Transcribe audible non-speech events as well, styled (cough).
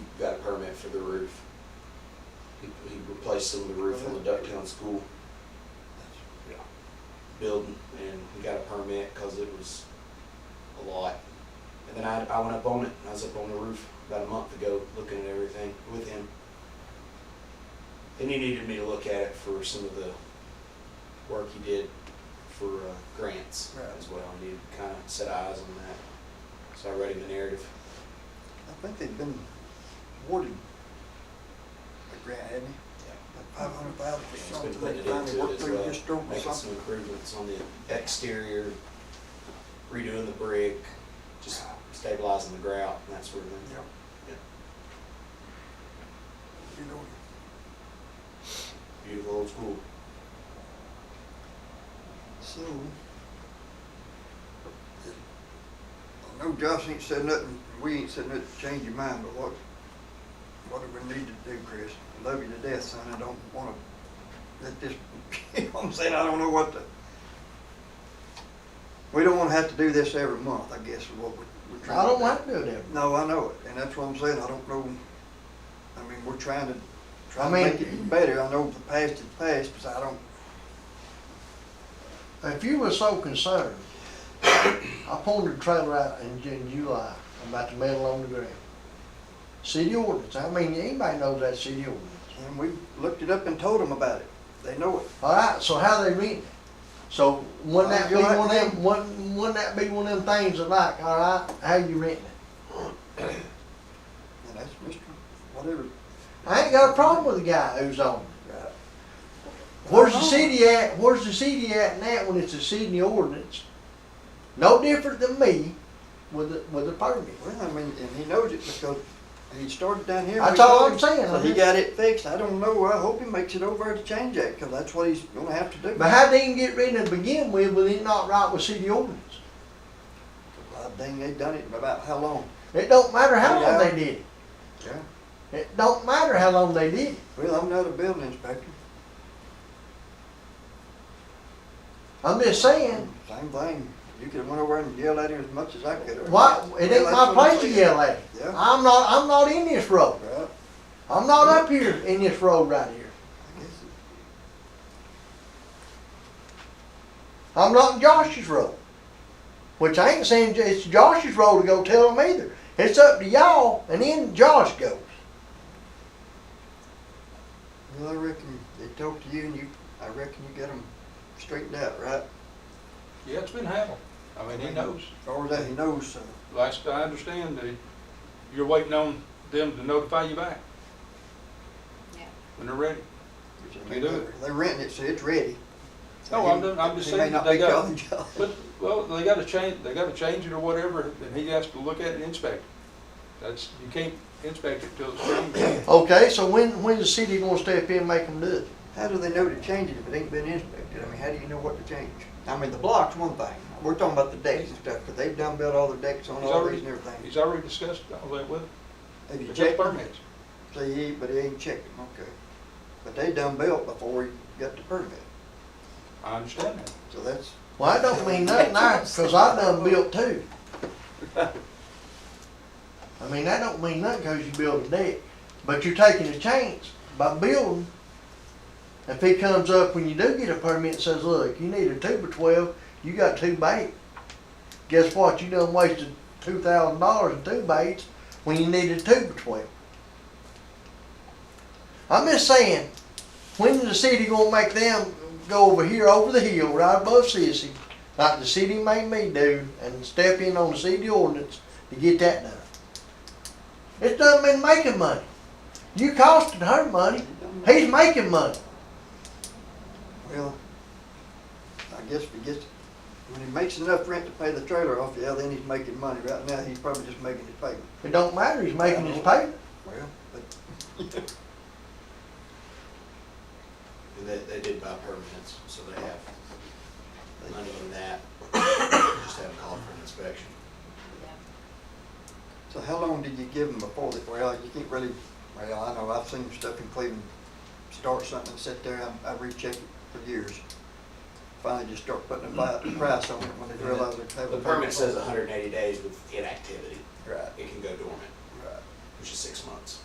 for the roof. He, he replaced some of the roof on the Ducktown School Yeah. building and he got a permit because it was a lot. And then I, I went up on it, I was up on the roof about a month ago looking at everything with him. And he needed me to look at it for some of the work he did for uh, grants Right. as well. I needed to kind of set eyes on that. So I read him the narrative. I think they've been awarded a grant, haven't they? Like five hundred thousand or It's been something, put they finally into it worked as through well, just over making some something. improvements on the exterior, redoing the brick, just stabilizing the grout and that sort of thing. Yeah. Yeah. You know, Beautiful old school. so. I know Josh ain't said nothing, we ain't said nothing to change your mind, but what, what do we need to do, Chris? I Love you to death, son, I don't wanna let this, (laughs) you know what I'm saying, I don't know what to. We don't wanna have to do this every month, I guess, is what we- we're trying to I don't do. want to do that. No, I know it, and that's what I'm saying, I don't know, I mean, we're trying to, I trying to mean- make it better, I know the past is past, but I don't, If you were so concerned, I pulled the trailer out in Ju- July about the metal on the ground. City ordinance, I mean, anybody knows that city ordinance. and we looked it up and told them about it, they know it. All right, so how they reading it? So wouldn't that be Well, you're one of right. them, wouldn't, wouldn't that be one of them things that like, all right, how you renting it? And that's Mr. Whatever. I ain't got a problem with the guy who's on it. Right. Where's the Uh-huh. city at, where's the city at in that when it's a city ordinance? No different than me with the, with the permit. Well, I mean, and he knows it because he started down here. That's we told all I'm him, saying, So I he mean- got it fixed, I don't know, I hope he makes it over to change that, because that's what he's gonna have to do. But how they can get rid of it to begin with, with it not right with city ordinance? God Uh, dang, they done it in about how long? It don't matter how long Yeah. they did it. Yeah. It don't matter how long they did it. Well, I'm not a building inspector, I'm just saying, same thing, you could've went over and yelled at him as much as I could've. why, it ain't my place to yell at. Yeah. I'm not, I'm not in this road. Well, I'm not up here in this road right here. I guess it- I'm not in Josh's road. Which I ain't saying it's Josh's road to go tell him either. It's up to y'all and then Josh goes. well, I reckon they talked to you and you, I reckon you got them straightened out, right? Yeah, it's been handled. I mean, he knows. As far as that he knows, so. Last I understand, they- you're waiting on them to notify you back. Yeah. When they're ready. They do it. They're renting it, so it's ready. No, I'm done- I'm just He may saying not they be got- calling y'all. (laughs) But, well, they gotta change, they gotta change it or whatever, and he has to look at it and inspect it. That's, you can't inspect it till it's (coughs) ready. Okay, so when, when's the city gonna step in and make them do it? (laughs) How do they know to change it if it ain't been inspected? I mean, how do you know what to change? I mean, the block's one thing. We're talking about the decks and stuff, but they've done built all the decks on He's all already- these and everything. He's already discussed all that with, Have you with checked his them? permits. See, he- but he ain't checked them, okay. But they done built before he got the permit, I understand that. so that's, Well, I don't mean nothing there, cause I done built too. I mean, that don't mean nothing, cause you build a deck, but you're taking a chance by building. If he comes up when you do get a permit and says, look, you need a two by twelve, you got two bait. Guess what, you done wasted two thousand dollars in two baits when you needed two by twelve. I'm just saying, when the city gonna make them go over here, over the hill, right above Sissy, like the city made me do, and step in on the city ordinance to get that done? It doesn't mean making money. You costing her money, he's making money. well, I guess if he gets, when he makes enough rent to pay the trailer off, yeah, then he's making money. Right now, he's probably just making his payment. It don't matter, he's making his payment. Well, but And they, they did buy permits, so they have They- money in that. Just haven't called for an inspection. So how long did you give them before that? Well, you can't really, well, I know, I've seen stuff in Cleveland, start something and sit there, I, I recheck it for years. Finally just start putting a bi- price on it when they realize they have. The a permit says hundred and eighty days with inactivity. Right, It can go dormant, right. which is six months.